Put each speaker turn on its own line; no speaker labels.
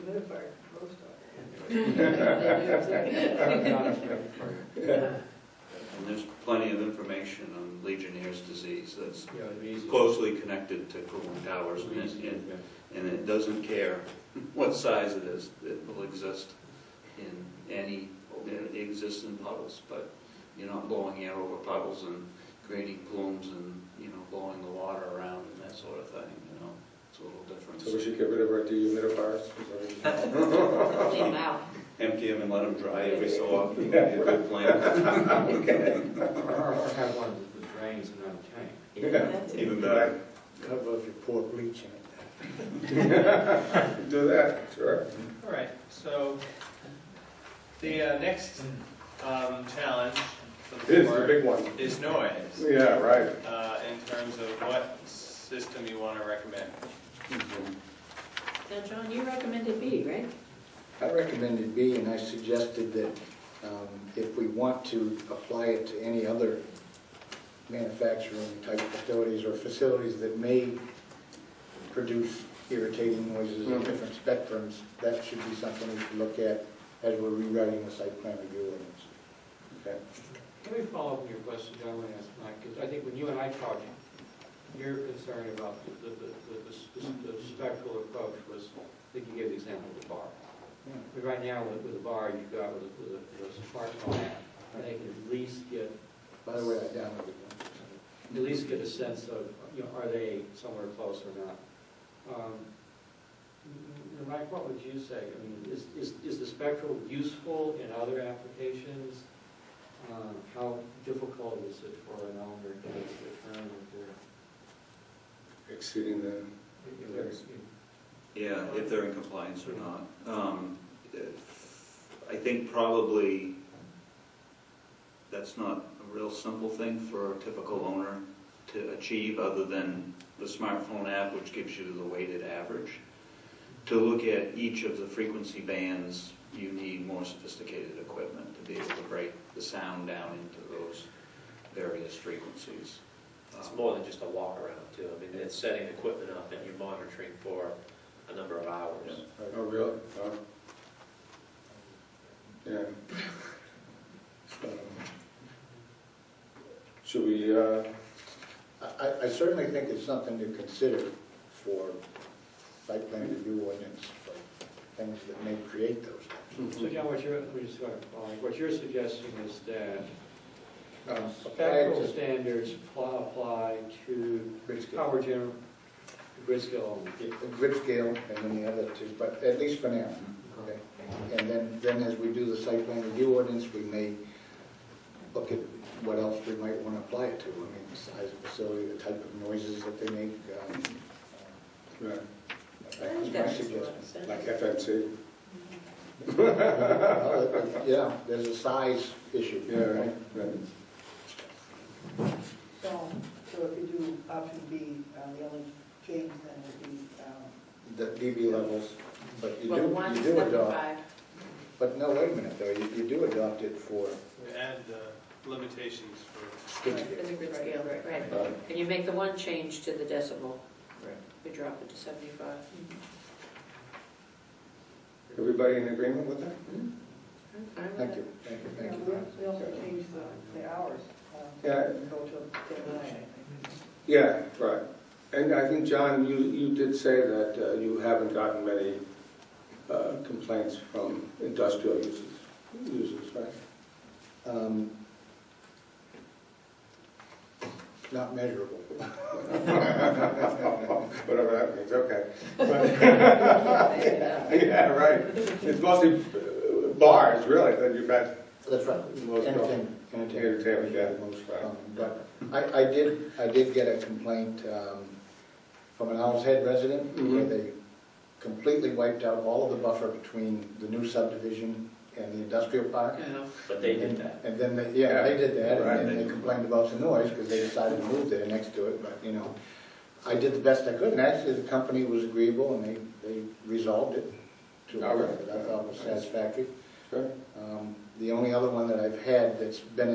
move our roast on.
And there's plenty of information on Legionnaire's disease that's
Yeah, it'd be easy.
closely connected to cooling towers, and it, and- and it doesn't care what size it is, it will exist in any, it exists in puddles, but you're not blowing air over puddles and creating plumes and, you know, blowing the water around and that sort of thing, you know, it's a little
So we
different.
should get rid of our dehumidifiers? Is that what you-
Clean them out.
Empty them and let them dry every so often, would be a good plan,
Or or have one with the drains and not a tank.
That's it.
even better.
How about you pour bleach in it?
Do that, sure.
All right, so the uh, next um, challenge for the
This is the
board
big one.
is noise,
Yeah, right.
uh, in terms of what system you want to recommend.
Now, John, you recommended B, right?
I recommended B, and I suggested that um, if we want to apply it to any other manufacturing type facilities or facilities that may produce irritating noises of different spectrums, that should be something we should look at as we're rewriting the site plan review ordinance. Okay?
Can we follow up on your question, John, when I asked Mike, because I think when you and I talked, your concern about the, the, the- the, the- the spectral approach was, I think you gave the example of the bar.
Yeah.
But right now, with, with the bar, you've got with, with a- with a smartphone app, they can at least get,
By the way, I downloaded one.
at least get a sense of, you know, are they somewhere close or not? Um, m- m- Mike, what would you say? I mean, is, is, is the spectral useful in other applications? Uh, How difficult is it for an owner to determine
Exceeding the, uh,
if they're, if they're
Yeah, if they're in compliance or not. Um, I think probably that's not a real simple thing for a typical owner to achieve, other than the smartphone app, which gives you the weighted average. To look at each of the frequency bands, you need more sophisticated equipment to be able to break the sound down into those various frequencies.
It's
Um,
more than just a walk around too. I mean, it's setting equipment up and you're monitoring for a number of hours.
oh, really? Oh. Yeah. So, Should we, uh,
I- I, I certainly think it's something to consider for site plan review ordinance, for things that may create those things.
So John, what you're, we just wanna follow, what you're suggesting is that
Um,
um,
apply
spectral
to-
standards pl- apply to
Grid scale.
power gen, grid scale.
The Grid scale and then the other two, but at least for now, okay? And then, then as we do the site plan review ordinance, we may look at what else we might want to apply it to. I mean, the size of facility, the type of noises that they make. um,
yeah,
uh,
I
That's
think
my
that makes a lot
suggestion.
of sense.
like FMC?
Well, it- it- Yeah, there's a size issue.
Yeah, right, right.
So, so if you do option B, uh, the only change then would be, um,
The DB levels, but you do,
Well, one
you
is
do adopt.
75.
But no, wait a minute though, you, you do adopt it for
We add the uh, limitations for,
grid
Right, For
scale.
the grid scale, right, right.
Right.
And you make the one change to the decimal.
Right.
We drop it to 75.
Everybody in agreement with that?
I'm fine with
Thank
that.
you, thank you,
you
thank
know,
you.
we- we also changed the, the hours. um,
Yeah.
Go till till nine, I think.
Yeah, right. And I think, John, you, you did say that uh, you haven't gotten many uh, complaints from industrial users, users, right?
Um, Not measurable.
Whatever that means, okay. But- Yeah, right. It's mostly uh, bars, really, that you've had
That's right.
Most
Entertainment.
entertainment, yeah, most,
Um,
right?
But I, I did, I did get a complaint um, from an Owl's Head resident where
Mhm.
they completely wiped out all of the buffer between the new subdivision and the industrial park.
But they did that.
And then, they- yeah, they did that,
Right.
and then they complained about the noise, because they decided to move there next to it, but, you know, I did the best I could, and actually, the company was agreeable, and they, they resolved it to a
All right.
point that I thought was satisfactory.
Sure.
Um, The only other one that I've had that's been